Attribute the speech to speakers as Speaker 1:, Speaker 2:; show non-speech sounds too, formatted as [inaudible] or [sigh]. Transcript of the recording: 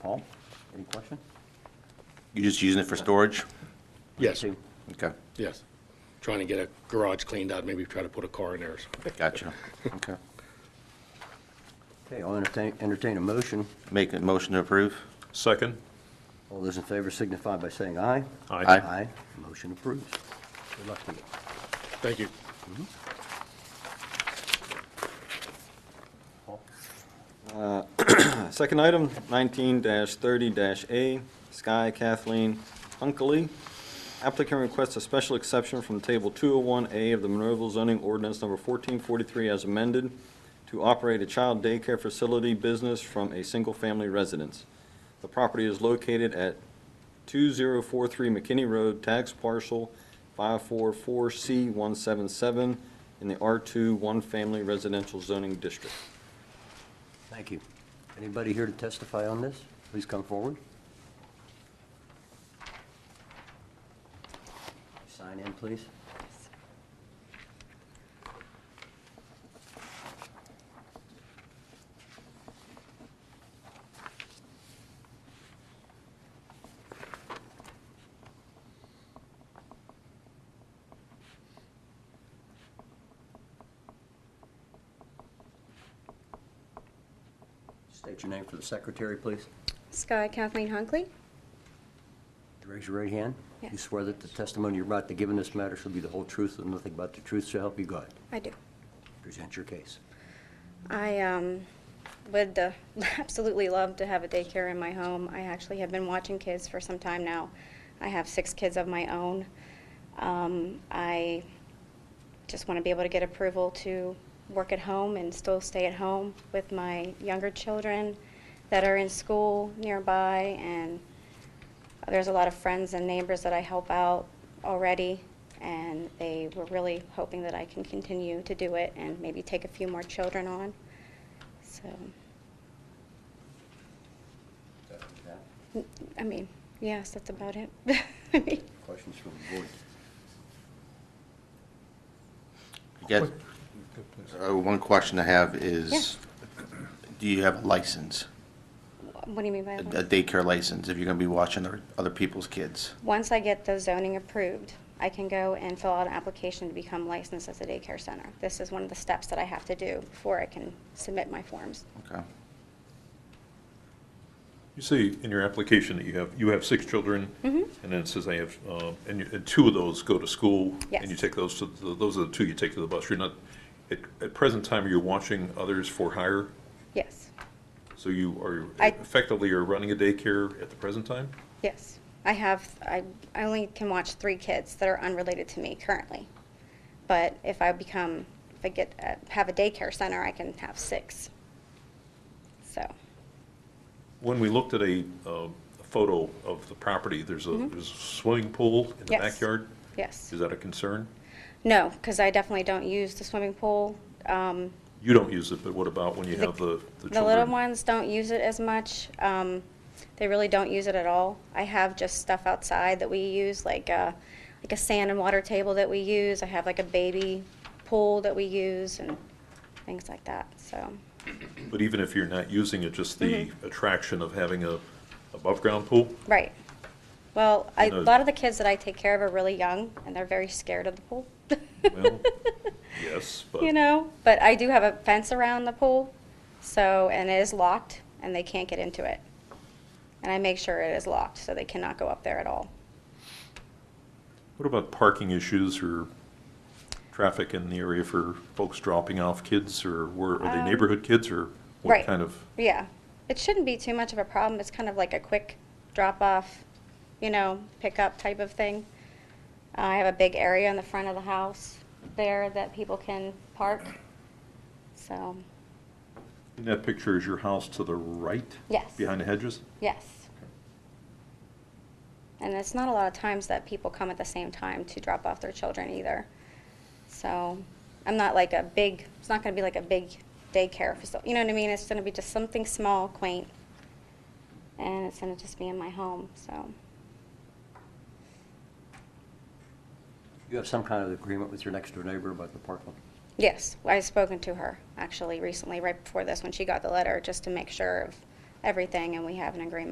Speaker 1: Paul, any question?
Speaker 2: You're just using it for storage?
Speaker 3: Yes,
Speaker 1: Two.
Speaker 2: Okay,
Speaker 3: yes. Trying to get a garage cleaned out, maybe try to put a car in there. or something.
Speaker 2: gotcha. Okay.
Speaker 1: Okay, I'll entertain, entertain a motion.
Speaker 2: Make a motion to approve?
Speaker 4: Second?
Speaker 1: All those in favor signify by saying aye.
Speaker 4: Aye.
Speaker 2: Aye.
Speaker 1: Aye, motion approves. Good luck to you.
Speaker 3: Thank you.
Speaker 5: Second item, 19-30-A, Sky Kathleen Hunkley. Applicant requests a special exception from Table 201A of the Monroeville zoning ordinance number 1443 as amended to operate a child daycare facility business from a single-family residence. The property is located at 2043 McKinney Road, tax parcel 544C177 in the R2 One Family Residential Zoning District.
Speaker 1: Thank you. Anybody here to testify on this? Please come forward. Sign in, please. State your name for the secretary, please.
Speaker 6: Sky Kathleen Hunkley.
Speaker 1: Raise your right hand. You
Speaker 6: Yes.
Speaker 1: swear that the testimony you're about to give in this matter shall be the whole truth and nothing but the truth, so help you God.
Speaker 6: I do.
Speaker 1: Present your case.
Speaker 6: I um, would uh, [laughs] absolutely love to have a daycare in my home. I actually have been watching kids for some time now. I have six kids of my own. Um, I just want to be able to get approval to work at home and still stay at home with my younger children that are in school nearby. And there's a lot of friends and neighbors that I help out already, and they were really hoping that I can continue to do it and maybe take a few more children on. So, I mean, yes, that's about it. [laughs] I mean,
Speaker 1: Questions from the board?
Speaker 2: You got- Uh, One question I have is, do you have a license?
Speaker 6: What do you mean by
Speaker 2: A
Speaker 6: that?
Speaker 2: a daycare license, if you're going to be watching other- other people's kids?
Speaker 6: Once I get the zoning approved, I can go and fill out an application to become licensed as a daycare center. This is one of the steps that I have to do before I can submit my forms.
Speaker 2: Okay.
Speaker 4: You say in your application that you have, you have six children?
Speaker 6: Mm-hmm.
Speaker 4: And then it says they have, uh, and you- and two of those go to school? And you
Speaker 6: Yes.
Speaker 4: take those to, the- those are the two you take to the bus. You're not, at, at present time, you're watching others for hire?
Speaker 6: Yes,
Speaker 4: So you are
Speaker 6: I-
Speaker 4: effectively are running a daycare at the present time?
Speaker 6: yes. I have, I, I only can watch three kids that are unrelated to me currently. But if I become, if I get, uh, have a daycare center, I can have six. So,
Speaker 4: When we looked at a, um, a photo of the property, there's a, there's a swimming pool in the
Speaker 6: Mm-hmm. Yes.
Speaker 4: backyard?
Speaker 6: yes.
Speaker 4: Is that a concern?
Speaker 6: No, because I definitely don't use the swimming pool. Um,
Speaker 4: You don't use it, but what about when you
Speaker 6: The-
Speaker 4: have the, the children?
Speaker 6: The little ones don't use it as much. Um, they really don't use it at all. I have just stuff outside that we use, like a, like a sand and water table that we use. I have like a baby pool that we use and things like that. So,
Speaker 4: But even if you're not using it, just the
Speaker 6: Mm-hmm.
Speaker 4: attraction of having a above-ground pool?
Speaker 6: right. Well, I, a
Speaker 4: No.
Speaker 6: lot of the kids that I take care of are really young and they're very scared of the pool. [laughs]
Speaker 4: Well, yes, but
Speaker 6: you know, but I do have a fence around the pool, so, and it is locked, and they can't get into it. And I make sure it is locked, so they cannot go up there at all.
Speaker 4: what about parking issues or traffic in the area for folks dropping off kids, or were, are they
Speaker 6: Um,
Speaker 4: neighborhood kids, or what
Speaker 6: right.
Speaker 4: kind of?
Speaker 6: Yeah, it shouldn't be too much of a problem, it's kind of like a quick drop-off, you know, pickup type of thing. I have a big area in the front of the house there that people can park, so,
Speaker 4: In that picture, is your house to the right?
Speaker 6: Yes.
Speaker 4: Behind the hedges?
Speaker 6: yes. And it's not a lot of times that people come at the same time to drop off their children either. So I'm not like a big, it's not going to be like a big daycare facility. You know what I mean? It's going to be just something small, quaint. And it's going to just be in my home. So,
Speaker 1: You have some kind of agreement with your next-door neighbor about the parking?
Speaker 6: yes, I've spoken to her actually recently, right before this, when she got the letter, just to make sure of everything and we have an agreement.